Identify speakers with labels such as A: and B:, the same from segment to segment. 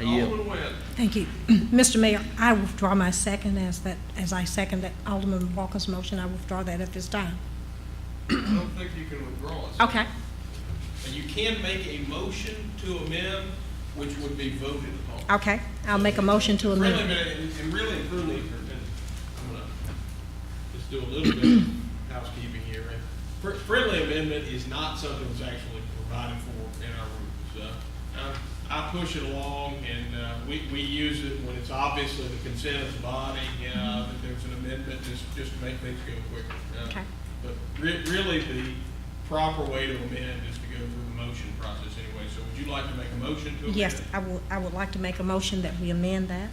A: I yield.
B: Alderman West.
C: Thank you. Mr. Mayor, I withdraw my second as that, as I second that Alderman Walker's motion. I withdraw that at this time.
B: I don't think you can withdraw it.
C: Okay.
B: And you can make a motion to amend, which would be voted upon.
C: Okay, I'll make a motion to
B: Really,
C: amend.
B: man, and- and really and truly, if you're- and I'm gonna just do a little bit of housekeeping here. right? Fr- Friendly amendment is not something that's actually provided for in our rules. Uh, I I push it along, and uh, we, we use it when it's obviously the consensus body, uh, that there's an amendment, just, just to make things go quicker. Uh,
C: Mm-hmm. Okay.
B: But re- really, the proper way to amend is to go through the motion process anyway. So would you like to make a motion to amend?
C: Yes, I would, I would like to make a motion that we amend that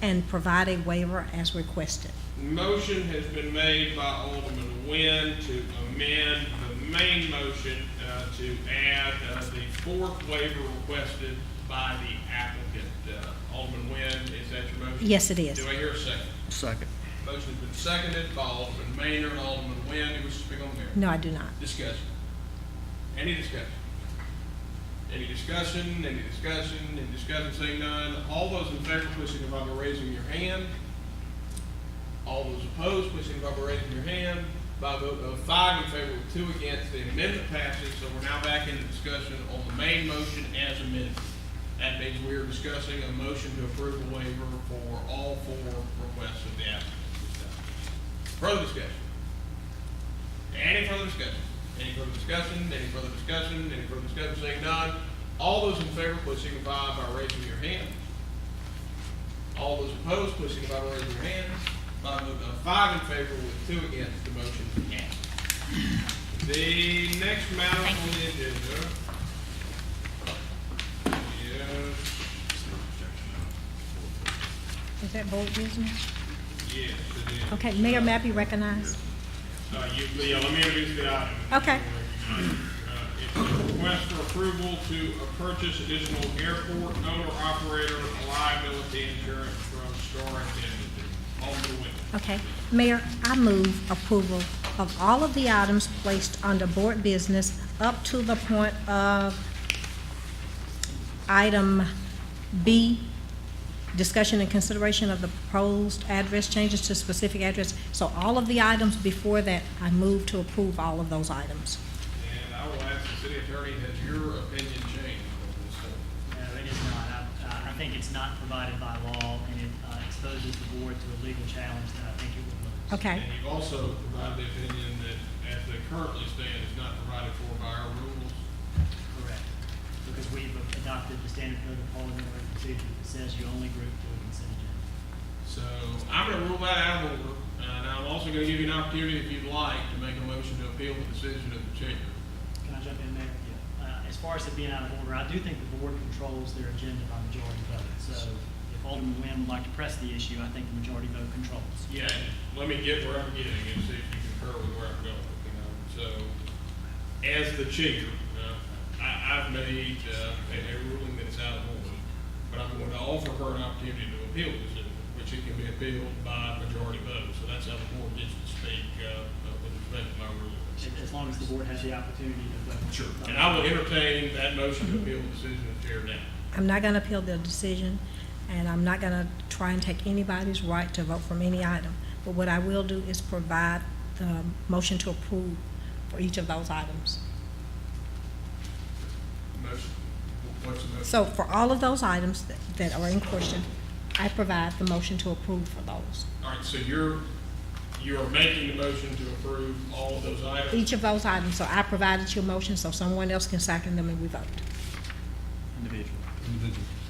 C: and provide a waiver as requested.
B: Motion has been made by Alderman Nguyen to amend the main motion uh, to add uh, the fourth waiver requested by the applicant. Uh, Alderman Nguyen, is that your motion?
C: Yes, it is.
B: Do I hear a second?
A: Second.
B: Motion's been seconded by Alderman Maynard and Alderman Nguyen. Who wishes to speak on the matter?
C: No, I do not.
B: Discussion. Any discussion? Any discussion, any discussion, any discussion, seeing none. All those in favor, please signify by raising your hand. All those opposed, please signify by raising your hand. By a vote of five in favor with two against, the amendment passes, so we're now back into discussion on the main motion as amended. That means we are discussing a motion to approve a waiver for all four requests of the applicant. Further discussion? Any further discussion? Any further discussion? Any further discussion? Any further discussion? Saying none. All those in favor, please signify by raising your hand. All those opposed, please signify by raising your hand. By a vote of five in favor with two against, the motion passed. The next matter on the agenda. Yes,
C: Is that board business?
B: yes, it is.
C: Okay, Mayor Mappy recognized.
B: Uh, you, yeah, let me introduce the item.
C: Okay.
B: Uh, It's a request for approval to uh, purchase additional airport owner-operator liability insurance from Star Indemnity. Alderman Wynn.
C: Okay. Mayor, I move approval of all of the items placed under board business up to the point of item B, discussion and consideration of the proposed address changes to specific address. So all of the items before that, I move to approve all of those items.
B: And I will ask the city attorney, has your opinion changed on this? subject?
D: No, it is not. I, I think it's not provided by law, and it uh, exposes the board to a legal challenge that I think it would lose.
C: Okay,
B: And you've also provided the opinion that, as they currently stand, is not provided for by our rules.
D: Correct. Because we've adopted the standard code of parliamentary procedure that says you only group to a consent agenda.
B: So I'm going to rule that out of order, and I'm also going to give you an opportunity, if you'd like, to make a motion to appeal the decision of the chamber.
D: Can I jump in there? Uh, As far as it being out of order, I do think the board controls their agenda by majority vote. So if Alderman Nguyen would like to press the issue, I think the majority vote controls.
B: Yeah, let me get where I'm getting and see if you concur with where I'm going, you know, so, as the chair, uh, I, I've made, uh, a, a ruling that's out of order, but I'm going to offer her an opportunity to appeal this, uh, which it can be appealed by majority vote, so that's how the board gets to speak, uh, uh, with respect to my ruling.
D: As- As long as the board has the opportunity to vote. Uh,
B: And I will entertain that motion to appeal the decision of the chair now.
C: I'm not gonna appeal the decision, and I'm not gonna try and take anybody's right to vote from any item. But what I will do is provide the motion to approve for each of those items.
B: Motion, what's the motion?
C: So for all of those items that- that are in question, I provide the motion to approve for those.
B: All right, so you're, you're making the motion to approve all of those items?
C: Each of those items, so I provided your motion, so someone else can second them and we vote. Individually.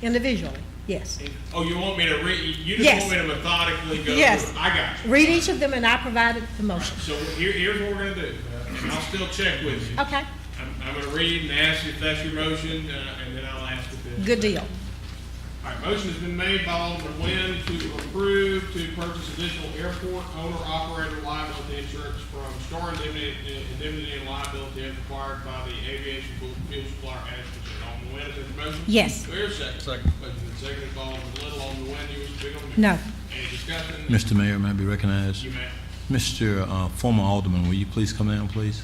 C: Individually, yes.
B: Oh, you want me to read, you just
C: Yes.
B: want me to methodically go through?
C: Yes.
B: it. I got you.
C: Read each of them and I provided the motion.
B: So here, here's what we're gonna do, uh, and I'll still check with you.
C: Okay,
B: I'm, I'm gonna read and ask you if that's your motion, uh, and then I'll ask if it's.
C: good deal.
B: All right, motion has been made by Alderman Nguyen to approve to purchase additional airport owner-operator liability insurance from Star Indemnity Indemnity and Liability as required by the Aviation Fuel Fuel Supplier Act. Alderman Nguyen, is there a motion?
C: Yes.
B: Do I hear a second? Second. Motion has been seconded by Alderman Little, Alderman Nguyen, you wish to speak on the
C: No.
B: Any discussion?
E: Mr. Mayor, may I be recognized?
B: You may.
E: Mr. uh, former Alderman, will you please come down, please?